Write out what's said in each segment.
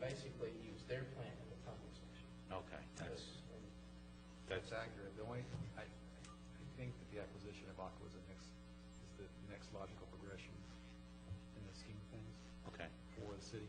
basically used their plan in the comment section. Okay, that's, And that's, That's accurate. The only, I, I think that the acquisition of Aqua is the next, is the next logical progression in the scheme of things okay, for the city.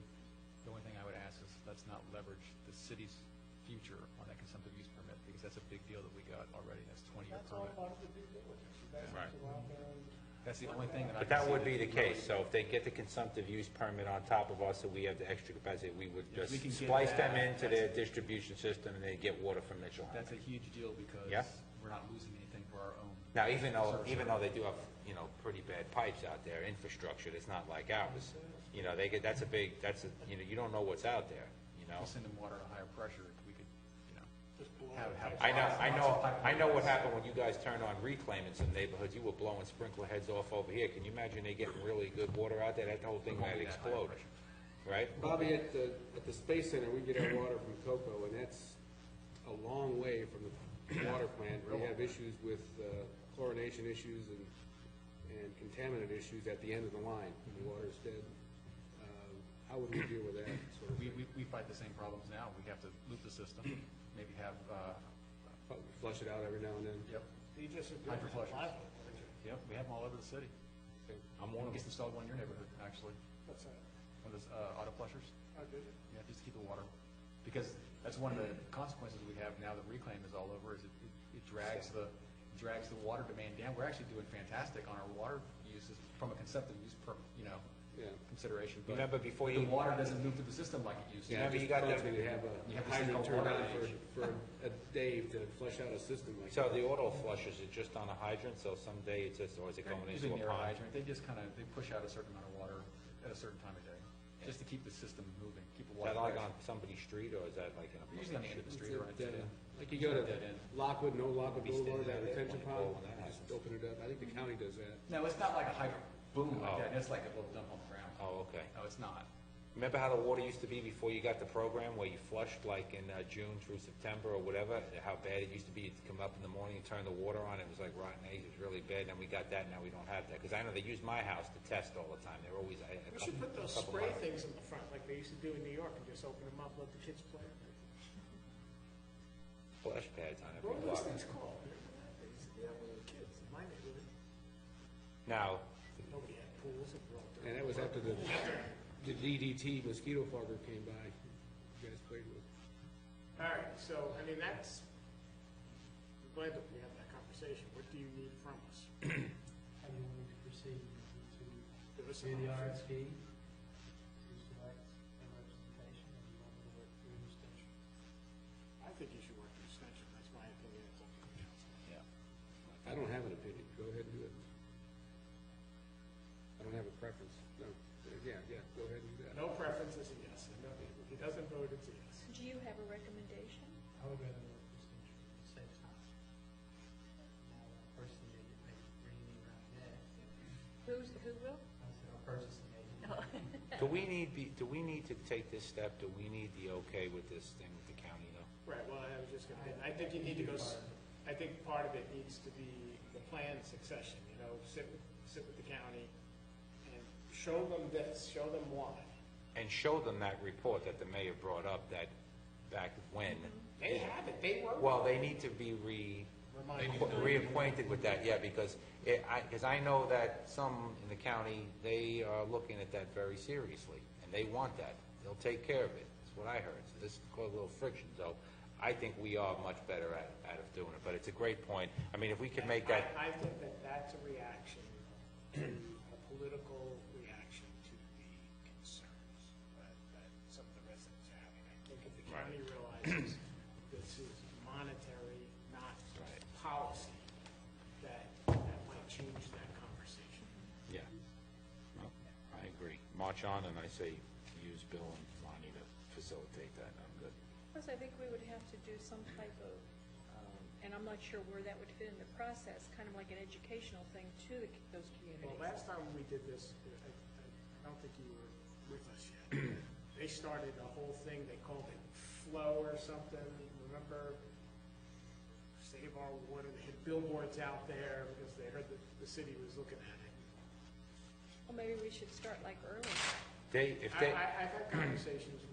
The only thing I would ask is, let's not leverage the city's future on that consumptive use permit, because that's a big deal that we got already. That's twenty-year That's all permit. part of the due diligence. You guys Right. have to go out there and That's the only thing that I. but can that see would be the case, so if they get the consumptive use permit on top of us, and we have the extra capacity, we would If just we can get splice them that, into their distribution system, and they get water from Mitchell Harbor. That's a huge deal, because Yeah. we're not losing anything for our own. Now, even though, Sure, even though they do have, you know, pretty bad pipes out there, infrastructure that's not like ours, you know, they get, that's a big, that's a, you know, you don't know what's out there, you know? We send them water at a higher pressure, if we could, you know, just blow have, it. have. I know, I lots of know, pipe I know what lines. happened when you guys turned on reclaim in some neighborhoods, you were blowing sprinkler heads off over here, can you imagine they getting really good water out there, that whole thing Won't might be that high explode, pressure. right? Bobby, at the, at the Space Center, we get our water from Cocoa, and that's a long way from the water plant. We have issues with uh, chlorination issues and, and contaminant issues at the end of the line. The water's dead. Um, How would we deal with that sort of We, thing? we, we fight the same problems now. We have to loop the system, maybe have, uh, Flush it out every now and then? yep, You just agree Hydro with the flushes. Bible, wouldn't you? yep, we have them all over the city. I'm one One of gets them. installed one in your neighborhood, actually, That's a, one of those, uh, auto flushers. I did it. Yeah, just to keep the water, because that's one of the consequences we have now that reclaim is all over, is it, it- it drags the, drags the water demand down. We're actually doing fantastic on our water uses from a conceptive use per, you know, Yeah. consideration. but Remember before you- The water doesn't move through the system like it used to. Yeah, Remember it you just got bugs that- me to have You have a this thing hydrant called turned water on damage. for, for a day to flush out a system like So that. the auto flushers are just on a hydrant, so someday it's just, or is it going Usually into a near a pond? hydrant, they just kind of, they push out a certain amount of water at a certain time of day, just to keep the system moving, keep the Is water that like pressure. on somebody's street, or is that like in a? Usually on the end of the street or right It's at, uh, today. Like you go to Dead end. Lockwood, no Lockwood Be standing Boulevard, that out there retention when you pond, go when that just happens. open it up. I think the county does that. No, it's not like a hyper boom like Oh. that, it's like a little dump on the ground. Oh, okay. No, it's not. Remember how the water used to be before you got the program, where you flushed like in uh, June through September or whatever? How bad it used to be, you'd come up in the morning and turn the water on, it was like rotten eggs, it was really bad, and then we got that, now we don't have that. Because I know they use my house to test all the time, they're always. I- a We should couple- put those couple spray miles. things in the front, like they used to do in New York, and just open them up, let the kids play. Flush pads on What every were those block. things called? Remember that? They used to do that when we were kids, in my neighborhood. Now, Nobody had pools, it were all dirty. And that was after the, the DDT mosquito fogger came by, you guys played with. All right, so, I mean, that's, I'm glad that we had that conversation. What do you need from us? How do you want me to proceed? To Give us do an the option. RFP, to select a representation, or do you want me to work through an extension? I think you should work the extension, that's my opinion. It's up to the council. I don't have an opinion, go ahead and do it. I don't have a preference, no, yeah, yeah, go ahead and do that. No preference is a yes, and no, if he doesn't vote, it's a yes. Do you have a recommendation? I would rather work through extension, it saves time. Now, a person may get paid really around that. Who's, who will? I said, I'll purchase an agent. do we need, be- do we need to take this step? Do we need the okay with this thing with the county though? Right, well, I was just gonna, hit- I think you need to go, s- I think part of it needs to be the plan succession, you know, sit, with- sit with the county and show them this, show them why. And show them that report that the mayor brought up that back when. They have it, they wrote it. Well, they need to be re, Reminded. reacquainted with that, yeah, because it, I, because I know that some in the county, they are looking at that very seriously, and they want that. They'll take care of it, that's what I heard. So this caused a little friction, so I think we are much better at, at of doing it, but it's a great point. I mean, if we could make that, I I think that that's a reaction, to a political reaction to the concerns that, that some of the residents are having. I think if the county realizes this is monetary, not policy, that, that might change that conversation. yeah. Well, I agree. March on, and I say, use Bill and Lonnie to facilitate that, I'm good. Plus, I think we would have to do some type of, um, and I'm not sure where that would fit in the process, kind of like an educational thing to the c- those Well, communities. last time we did this, I, I- I don't think you were with us yet. They started a whole thing, they called it flow or something, remember? Save our water, they had billboards out there because they heard that the city was looking at it. Well, maybe we should start like early. They, if I, they. I, I've had conversations